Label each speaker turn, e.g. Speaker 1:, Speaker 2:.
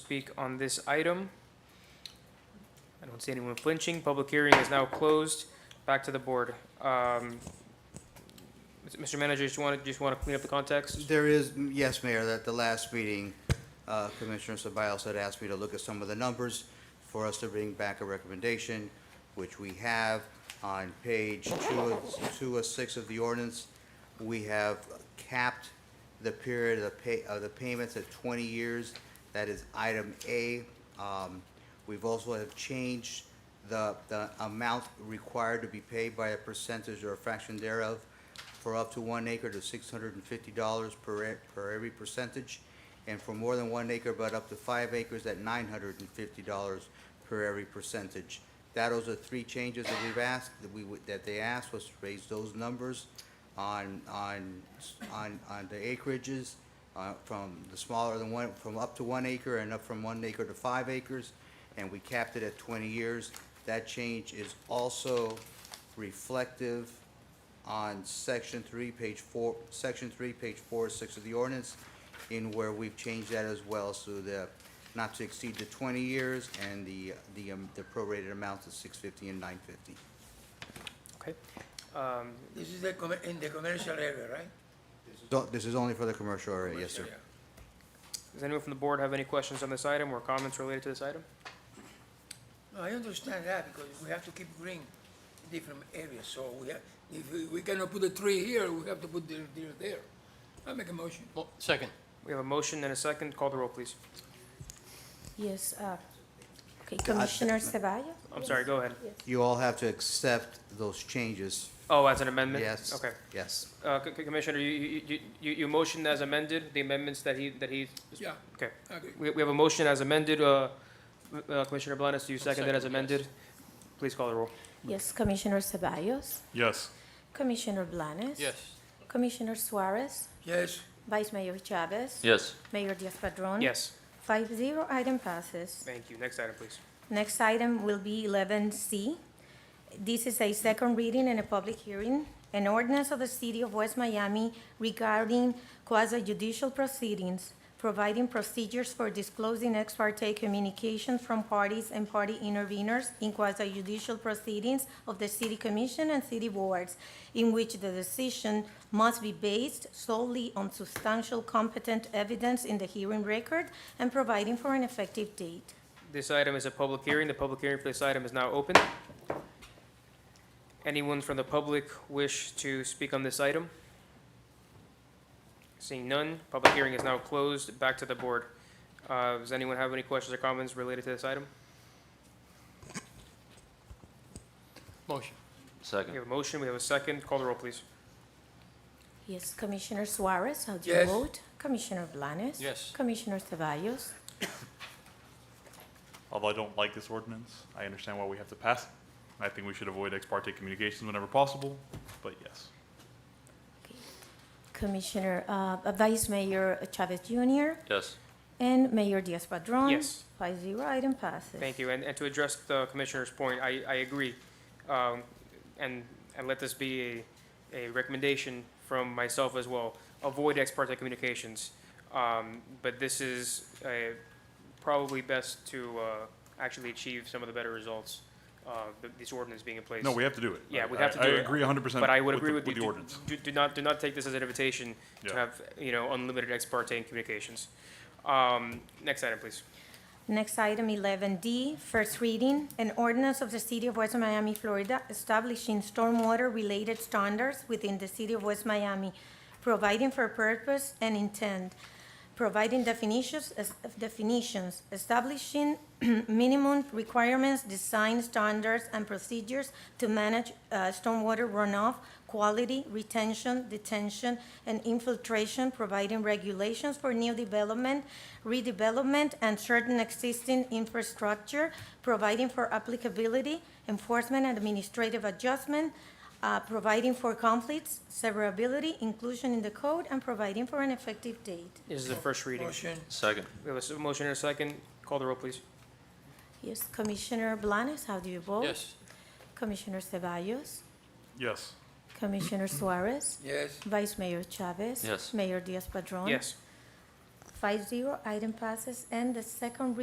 Speaker 1: speak on this item? I don't see anyone flinching. Public hearing is now closed. Back to the board. Um, Mr. Manager, just want to, just want to clean up the context?
Speaker 2: There is, yes, Mayor, that the last meeting, uh, Commissioner Ceballos had asked me to look at some of the numbers for us to bring back a recommendation, which we have on page two of, two of six of the ordinance. We have capped the period of the pay, of the payments at twenty years. That is item A. Um, We've also have changed the, the amount required to be paid by a percentage or a fraction thereof for up to one acre to six hundred and fifty dollars per, e- per every percentage, and for more than one acre but up to five acres at nine hundred and fifty dollars per every percentage. That those are three changes that we've asked, that we, would- that they asked was to raise those numbers on, on, on, on the acreages, uh, from the smaller than one, from up to one acre and up from one acre to five acres, and we capped it at twenty years. That change is also reflective on section three, page four, section three, page four, six of the ordinance, in where we've changed that as well, so the, not to exceed the twenty years, and the, the, um, the prorated amounts of six fifty and nine fifty.
Speaker 1: Okay. Um,
Speaker 3: This is the, commer- in the commercial area, right?
Speaker 2: This is only for the commercial area, yes, sir.
Speaker 3: Commercial area.
Speaker 1: Does anyone from the board have any questions on this item or comments related to this item?
Speaker 3: No, I understand that because we have to keep green in different areas, so we have, if we- we cannot put a tree here, we have to put the deer there. I make a motion.
Speaker 4: Well, second.
Speaker 1: We have a motion and a second. Call the roll, please.
Speaker 5: Yes, uh, okay, Commissioner Cevallos?
Speaker 1: Uh, I'm sorry, go ahead.
Speaker 2: You all have to accept those changes,
Speaker 1: Oh, as an amendment?
Speaker 2: yes?
Speaker 1: Okay.
Speaker 2: Yes.
Speaker 1: Uh, C- C- Commissioner, you, you, you- you, you motioned as amended, the amendments that he, that he,
Speaker 3: Yeah,
Speaker 1: okay.
Speaker 3: I agree.
Speaker 1: We, we have a motion as amended, uh, uh, Commissioner Blanes, do you second that as
Speaker 4: second, yes.
Speaker 1: amended? Please call the roll.
Speaker 5: Yes, Commissioner Cevallos?
Speaker 6: Yes.
Speaker 5: Commissioner Blanes?
Speaker 4: Yes.
Speaker 5: Commissioner Suarez?
Speaker 3: Yes,
Speaker 5: Vice Mayor Chavez?
Speaker 4: Yes.
Speaker 5: Mayor Diaz-Padrón?
Speaker 1: Yes,
Speaker 5: Five zero, item passes.
Speaker 1: thank you. Next item, please.
Speaker 5: Next item will be eleven C. This is a second reading and a public hearing. An ordinance of the City of West Miami regarding quasi-judicial proceedings, providing procedures for disclosing ex parte communications from parties and party interveners in quasi-judicial proceedings of the City Commission and City Boards, in which the decision must be based solely on substantial competent evidence in the hearing record and providing for an effective date.
Speaker 1: This item is a public hearing. The public hearing for this item is now open. Anyone from the public wish to speak on this item? Seeing none, public hearing is now closed. Back to the board. Uh, does anyone have any questions or comments related to this item?
Speaker 4: Motion.
Speaker 1: We
Speaker 7: Second.
Speaker 1: have a motion, we have a second. Call the roll, please.
Speaker 5: Yes, Commissioner Suarez, how do you
Speaker 3: Yes.
Speaker 5: vote? Commissioner Blanes?
Speaker 4: Yes.
Speaker 5: Commissioner Cevallos?
Speaker 6: Although I don't like this ordinance, I understand why we have to pass it. I think we should avoid ex parte communications whenever possible, but yes.
Speaker 5: Commissioner, uh, Vice Mayor Chavez Jr.
Speaker 7: Yes.
Speaker 5: and Mayor Diaz-Padrón?
Speaker 1: Yes.
Speaker 5: Five zero, item passes.
Speaker 1: Thank you. And, and to address the commissioner's point, I, I agree. Um, and, and let this be a, a recommendation from myself as well. Avoid ex parte communications. Um, but this is, uh, probably best to, uh, actually achieve some of the better results, uh, th- this ordinance being in place.
Speaker 6: No, we have to do it.
Speaker 1: Yeah, we
Speaker 6: I-
Speaker 1: have to
Speaker 6: I-
Speaker 1: do it,
Speaker 6: I agree hundred percent.
Speaker 1: But I would agree with you.
Speaker 6: With the
Speaker 1: do-
Speaker 6: ordinance.
Speaker 1: Do, do not, do not take this as an invitation to
Speaker 6: Yeah.
Speaker 1: have, you know, unlimited ex parte communications. Um, next item, please.
Speaker 5: Next item, 11D, first reading, an ordinance of the City of West Miami, Florida, establishing stormwater-related standards within the City of West Miami, providing for purpose and intent, providing definitions, es- definitions, establishing minimum requirements, design standards, and procedures to manage uh, stormwater runoff, quality, retention, detention, and infiltration, providing regulations for new development, redevelopment, and certain existing infrastructure, providing for applicability, enforcement, and administrative adjustment, uh, providing for conflicts, severability, inclusion in the code, and providing for an effective date.
Speaker 1: This is the first reading.
Speaker 3: motion,
Speaker 7: Second.
Speaker 1: We have a s- motion and a second. Call the roll, please.
Speaker 5: Yes, Commissioner Blanes, how do you vote?
Speaker 4: Yes.
Speaker 5: Commissioner Ceballos?
Speaker 6: Yes.
Speaker 5: Commissioner Suarez?
Speaker 3: yes,
Speaker 5: Vice Mayor Chavez?
Speaker 7: Yes.
Speaker 5: Mayor Diaz-Padrón?
Speaker 1: Yes.
Speaker 5: Five zero, item passes, and the second reading